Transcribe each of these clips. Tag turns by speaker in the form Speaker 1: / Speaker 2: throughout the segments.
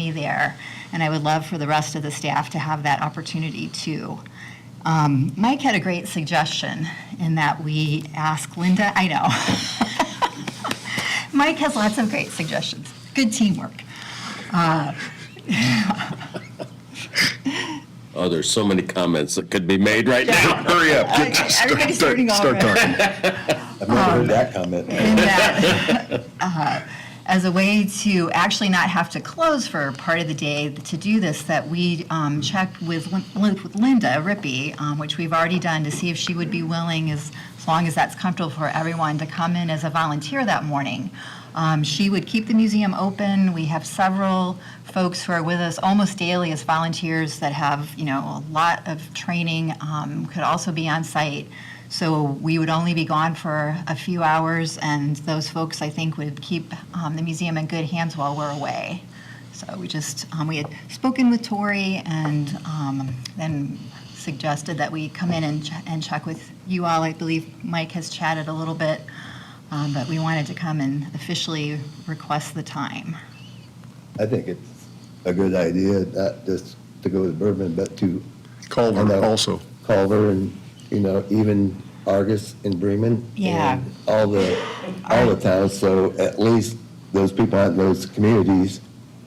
Speaker 1: be there, and I would love for the rest of the staff to have that opportunity too. Um, Mike had a great suggestion in that we ask Linda, I know. Mike has lots of great suggestions, good teamwork.
Speaker 2: Oh, there's so many comments that could be made right now. Hurry up.
Speaker 1: Okay, Everybody's starting over.
Speaker 3: I've never heard that comment.
Speaker 1: in that, uh, as a way to actually not have to close for part of the day to do this, that we um, checked with Lin- with Linda Rippey, um, which we've already done, to see if she would be willing, as as long as that's comfortable for everyone, to come in as a volunteer that morning. Um, She would keep the museum open. We have several folks who are with us almost daily as volunteers that have, you know, a lot of training, um, could also be on site. So we would only be gone for a few hours, and those folks, I think, would keep um, the museum in good hands while we're away. So we just, um, we had spoken with Tori and um, then suggested that we come in and ch- and check with you all. I believe Mike has chatted a little bit, um, but we wanted to come and officially request the time.
Speaker 3: I think it's a good idea, not just to go to Bourbon, but to And,
Speaker 4: Culver
Speaker 3: uh,
Speaker 4: also.
Speaker 3: Culver and, you know, even Argus and Bremen.
Speaker 1: Yeah.
Speaker 3: and All the, all the towns, so at least those people out in those communities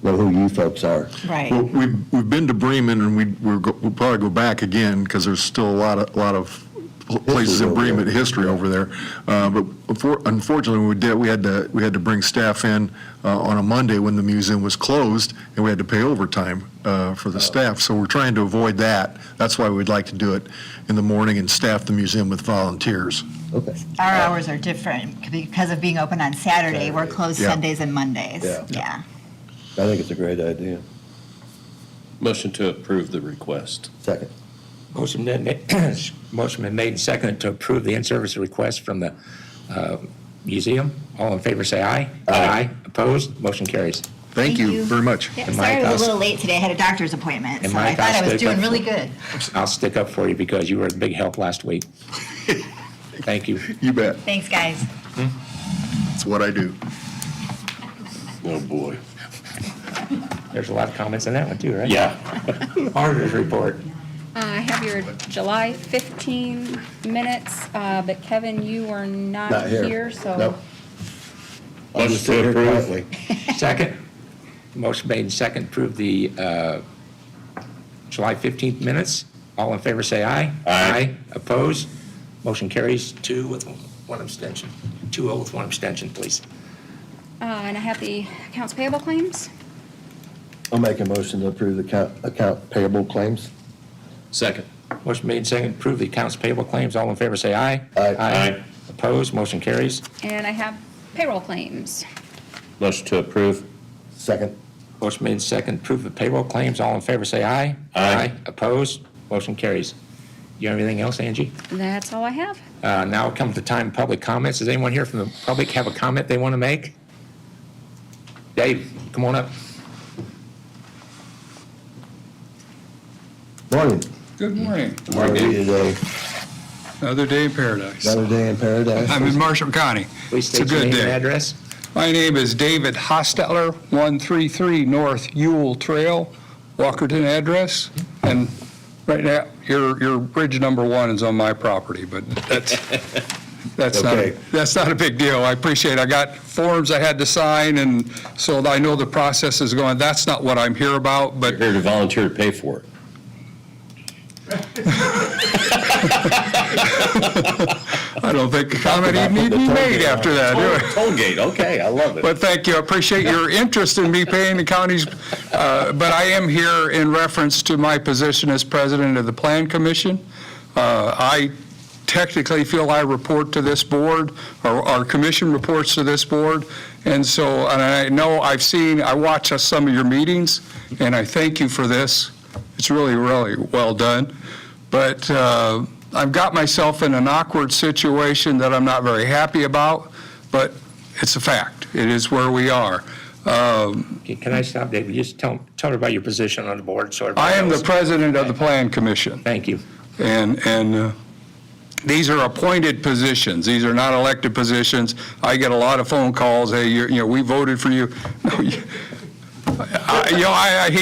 Speaker 3: know who you folks are.
Speaker 4: Well, We've, we've been to Bremen, and we, we're go- we'll probably go back again, because there's still a lot of, lot of pl- places in
Speaker 3: over
Speaker 4: Bremen,
Speaker 3: there.
Speaker 4: history over there. Uh, But unfor- unfortunately, when we did, we had to, we had to bring staff in uh, on a Monday when the museum was closed, and we had to pay overtime uh, for the staff. So we're trying to avoid that. That's why we'd like to do it in the morning and staff the museum with volunteers.
Speaker 3: Okay.
Speaker 1: Our hours are different because of being open on Saturday. We're closed
Speaker 4: Yeah.
Speaker 1: Sundays and Mondays.
Speaker 3: Yeah.
Speaker 1: Yeah.
Speaker 3: I think it's a great idea.
Speaker 2: Motion to approve the request.
Speaker 3: Second.
Speaker 5: Motion been made, motion been made and seconded to approve the in-service request from the uh, museum. All in favor, say aye. Aye. Opposed? Motion carries.
Speaker 4: Thank you very much.
Speaker 1: Yeah,
Speaker 5: And
Speaker 1: sorry, I was
Speaker 5: Mike,
Speaker 1: a
Speaker 5: I'll-
Speaker 1: little late today. I had a doctor's appointment,
Speaker 5: And
Speaker 1: so I
Speaker 5: Mike,
Speaker 1: thought
Speaker 5: I'll
Speaker 1: I was
Speaker 5: stick
Speaker 1: doing
Speaker 5: up-
Speaker 1: really good.
Speaker 5: I'll stick up for you because you were a big help last week. Thank you.
Speaker 4: You bet.
Speaker 1: Thanks, guys.
Speaker 4: It's what I do.
Speaker 2: Oh, boy.
Speaker 5: There's a lot of comments in that one too, right?
Speaker 2: Yeah.
Speaker 5: Auditor's report.
Speaker 6: Uh, I have your July 15 minutes, uh, but Kevin, you were not
Speaker 3: Not here.
Speaker 6: here, so
Speaker 3: Nope. I'll just sit
Speaker 2: Motion to
Speaker 3: here
Speaker 2: approve.
Speaker 3: quietly.
Speaker 5: Second. Motion made and seconded, approve the uh, July 15th minutes. All in favor, say aye. Aye. Opposed? Motion carries two with one abstention. Two oh with one abstention, please.
Speaker 6: uh, and I have the accounts payable claims.
Speaker 3: I'll make a motion to approve the account, account payable claims.
Speaker 2: Second.
Speaker 5: Motion made and seconded, approve the accounts payable claims. All in favor, say aye.
Speaker 3: Aye.
Speaker 2: Aye.
Speaker 5: Opposed? Motion carries.
Speaker 6: And I have payroll claims.
Speaker 2: Motion to approve.
Speaker 3: Second.
Speaker 5: Motion made and seconded, approve the payroll claims. All in favor, say aye.
Speaker 2: Aye.
Speaker 5: Opposed? Motion carries. You have anything else, Angie?
Speaker 6: That's all I have.
Speaker 5: Uh, Now comes the time of public comments. Does anyone here from the public have a comment they want to make? Dave, come on up.
Speaker 3: Morning.
Speaker 7: Good morning.
Speaker 3: How are you today?
Speaker 7: Another day in paradise.
Speaker 3: Another day in paradise?
Speaker 7: I'm in Marshall County.
Speaker 5: Please
Speaker 7: It's a
Speaker 5: state your
Speaker 7: good
Speaker 5: name and
Speaker 7: day.
Speaker 5: address.
Speaker 7: My name is David Hostetler, 133 North Ewell Trail, Walkerton address. And right now, your, your bridge number one is on my property, but that's, that's not,
Speaker 3: Okay.
Speaker 7: a- that's not a big deal. I appreciate, it. I got forms I had to sign, and so I know the process is going. That's not what I'm here about, but
Speaker 2: You're here to volunteer to pay for it.
Speaker 7: I don't think a comment
Speaker 3: about
Speaker 7: even need to be
Speaker 3: the
Speaker 7: made
Speaker 3: tollgate.
Speaker 7: after that, do I?
Speaker 2: Tollgate, Oh, okay, I love it.
Speaker 7: But thank you, I appreciate your interest in me paying the counties, uh, but I am here in reference to my position as president of the Plan Commission. Uh, I technically feel I report to this board, or our commission reports to this board, and so, and I know, I've seen, I watch uh, some of your meetings, and I thank you for this. It's really, really well done. But uh, I've got myself in an awkward situation that I'm not very happy about, but it's a fact. It is where we are. Um,
Speaker 5: Okay, Can I stop, David? Just tell, tell everybody your position on the board, so everybody
Speaker 7: I am the
Speaker 5: knows.
Speaker 7: president of the Plan Commission,
Speaker 5: Thank you.
Speaker 7: and, and uh, these are appointed positions. These are not elected positions. I get a lot of phone calls, hey, you're- you know, we voted for you. No, you- I- You know, I I hate